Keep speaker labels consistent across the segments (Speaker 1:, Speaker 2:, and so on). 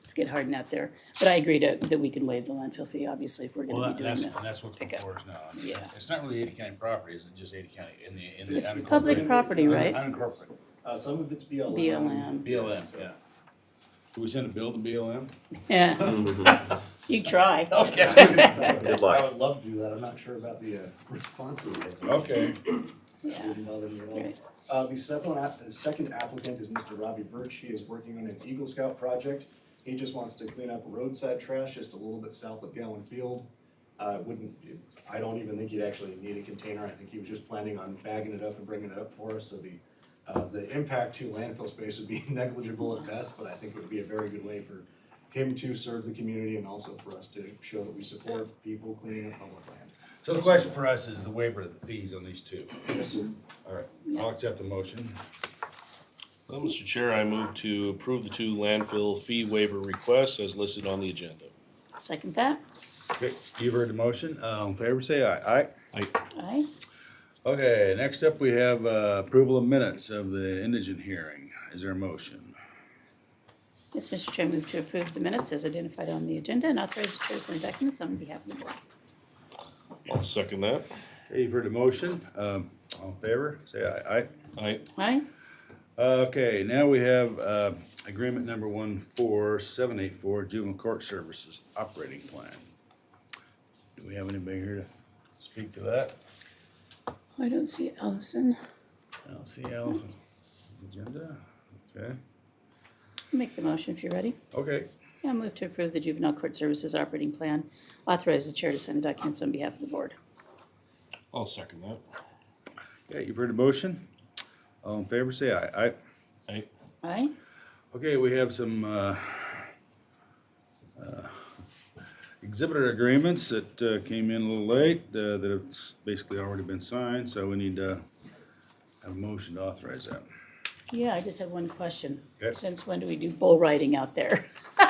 Speaker 1: it's get hard out there. But I agree to, that we can waive the landfill fee, obviously, if we're
Speaker 2: Well,
Speaker 1: gonna
Speaker 2: that-
Speaker 1: be doing
Speaker 2: that's,
Speaker 1: that.
Speaker 2: and that's what's
Speaker 1: pickup.
Speaker 2: before us now. I mean,
Speaker 1: Yeah.
Speaker 2: It's not really Ada County property, it's just Ada County in the, in the.
Speaker 1: It's
Speaker 2: unincorporated-
Speaker 1: public property, right?
Speaker 2: Unincorporated,
Speaker 3: Uh, some of it's BLM.
Speaker 1: BLM,
Speaker 2: BLM, yeah. Do we send a bill to BLM?
Speaker 1: yeah. You try.
Speaker 2: Okay.
Speaker 3: Good
Speaker 4: luck.
Speaker 3: I would love to do that, I'm not sure about the, uh, responsibility.
Speaker 2: Okay,
Speaker 1: Yeah.
Speaker 3: Wouldn't bother me at all.
Speaker 1: Right.
Speaker 3: Uh, the second app, the second applicant is Mr. Robbie Birch, he is working on an Eagle Scout project. He just wants to clean up roadside trash just a little bit south of Gowan Field. Uh, wouldn't, I don't even think he'd actually need a container, I think he was just planning on bagging it up and bringing it up for us, so the, uh, the impact to landfill space would be negligible at best, but I think it would be a very good way for him to serve the community and also for us to show that we support people cleaning up public land.
Speaker 2: so the question for us is the waiver of the fees on these two.
Speaker 3: Yes, sir.
Speaker 2: All right, I'll accept the motion.
Speaker 5: Well, Mr. Chair, I move to approve the two landfill fee waiver requests as listed on the agenda.
Speaker 1: Second that,
Speaker 2: Okay, You've heard the motion, uh, all in favor, say aye. Aye.
Speaker 5: I,
Speaker 1: aye.
Speaker 2: Okay, next up, we have uh, approval of minutes of the indigent hearing. Is there a motion?
Speaker 1: Yes, Mr. Chair, move to approve the minutes as identified on the agenda and authorize the chair to sign documents on behalf of the board.
Speaker 5: I'll second that.
Speaker 2: Okay, You've heard the motion, um, all in favor, say aye. Aye.
Speaker 5: I,
Speaker 1: Aye,
Speaker 2: Okay, now we have uh, agreement number one four seven eight four juvenile court services operating plan. Do we have anybody here to speak to that?
Speaker 1: I don't see Allison.
Speaker 2: I don't see Allison. Agenda, okay,
Speaker 1: Make the motion if you're ready.
Speaker 2: okay.
Speaker 1: Yeah, move to approve the juvenile court services operating plan. Authorize the chair to sign the documents on behalf of the board.
Speaker 5: I'll second that.
Speaker 2: Okay, you've heard the motion. All in favor, say aye. Aye.
Speaker 5: I,
Speaker 1: Aye,
Speaker 2: Okay, we have some uh, uh, exhibitor agreements that uh, came in a little late, uh, that have basically already been signed, so we need to have a motion to authorize that.
Speaker 1: yeah, I just have one question.
Speaker 2: Okay.
Speaker 1: Since when do we do bull riding out there?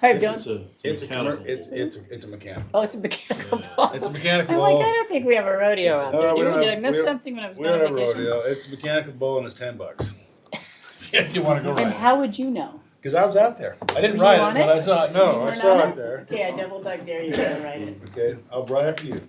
Speaker 1: I
Speaker 4: It's
Speaker 1: don't,
Speaker 4: a, it's a mechanical.
Speaker 2: it's, it's a mechanical.
Speaker 1: oh, it's a mechanical ball.
Speaker 2: It's a mechanical
Speaker 1: I'm like,
Speaker 2: ball.
Speaker 1: I don't think we have a rodeo out there.
Speaker 2: Uh, we
Speaker 1: do
Speaker 2: don't
Speaker 1: we? Did I
Speaker 2: have-
Speaker 1: miss
Speaker 2: we don't-
Speaker 1: something when I was
Speaker 2: We
Speaker 1: going
Speaker 2: don't
Speaker 1: on
Speaker 2: have
Speaker 1: vacation?
Speaker 2: rodeo, it's a mechanical ball and it's ten bucks. If you wanna go
Speaker 1: And
Speaker 2: ride it,
Speaker 1: how would you know?
Speaker 2: cause I was out there. I didn't
Speaker 1: Were you
Speaker 2: ride
Speaker 1: on
Speaker 2: it, but
Speaker 1: it?
Speaker 2: I saw it, no,
Speaker 1: You
Speaker 2: I
Speaker 1: weren't
Speaker 2: saw
Speaker 1: on
Speaker 2: it there.
Speaker 1: Okay, I double dug there, you gotta write it.
Speaker 2: Okay, I'll right after you.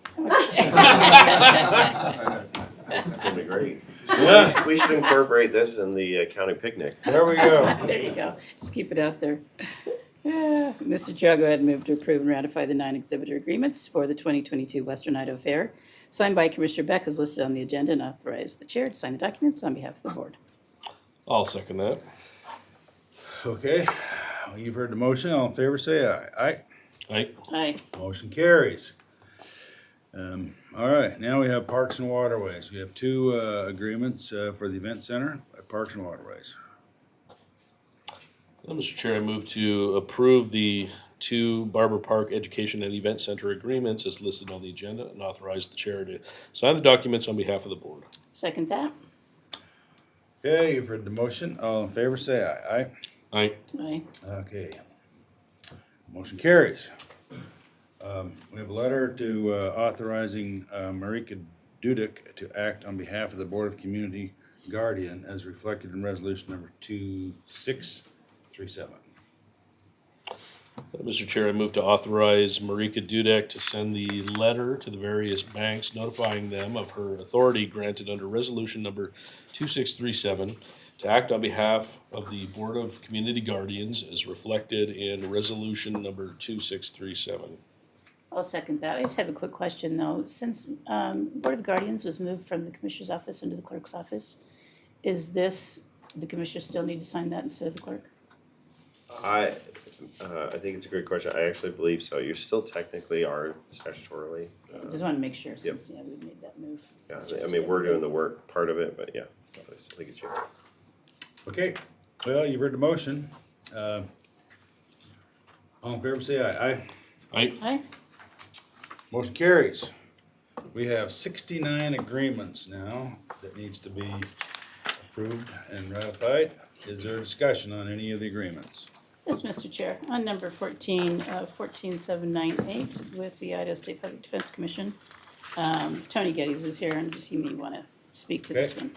Speaker 4: It's gonna be great.
Speaker 2: Yeah,
Speaker 4: We should incorporate this in the uh, county picnic.
Speaker 2: there we go.
Speaker 1: There you go. Just keep it out there. Ah, Mr. Chair, I'll go ahead and move to approve and ratify the nine exhibitor agreements for the 2022 Western Idaho Fair, signed by Commissioner Beck, as listed on the agenda, and authorize the chair to sign the documents on behalf of the board.
Speaker 5: I'll second that.
Speaker 2: Okay, you've heard the motion, all in favor, say aye. Aye.
Speaker 5: I,
Speaker 1: Aye.
Speaker 2: Motion carries. Um, all right, now we have Parks and Waterways. We have two, uh, agreements, uh, for the event center at Parks and Waterways.
Speaker 5: well, Mr. Chair, I move to approve the two Barber Park Education and Event Center agreements as listed on the agenda and authorize the chair to sign the documents on behalf of the board.
Speaker 1: Second that.
Speaker 2: Okay, you've heard the motion, all in favor, say aye. Aye.
Speaker 5: I,
Speaker 1: Aye.
Speaker 2: Okay. Motion carries. Um, we have a letter to, uh, authorizing, uh, Marika Dudek to act on behalf of the Board of Community Guardian as reflected in resolution number two six three seven.
Speaker 5: Mr. Chair, I move to authorize Marika Dudek to send the letter to the various banks notifying them of her authority granted under resolution number two six three seven to act on behalf of the Board of Community Guardians as reflected in resolution number two six three seven.
Speaker 1: I'll second that. I just have a quick question, though. Since um, Board of Guardians was moved from the Commissioner's office into the clerk's office, is this, the Commissioner still need to sign that instead of the clerk?
Speaker 4: I, uh, I think it's a great question. I actually believe so. You're still technically are statutorily.
Speaker 1: I Just want to make sure, since, yeah, we made that move.
Speaker 4: Yeah, I mean, we're doing the work part of it, but yeah, I still think it's you.
Speaker 2: Okay, well, you've heard the motion. Uh, All in favor, say aye. Aye.
Speaker 5: I,
Speaker 1: Aye.
Speaker 2: Motion carries. We have sixty-nine agreements now that needs to be approved and ratified. Is there discussion on any of the agreements?
Speaker 1: Yes, Mr. Chair, on number fourteen, uh, fourteen seven nine eight with the Idaho State Public Defense Commission. Um, Tony Geddes is here and just, he may wanna speak to this
Speaker 2: Okay.
Speaker 1: one.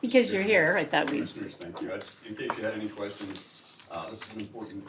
Speaker 1: Because you're here, I thought we,
Speaker 6: Commissioners, thank you. I just, in case you had any questions, uh, Uh, This is an important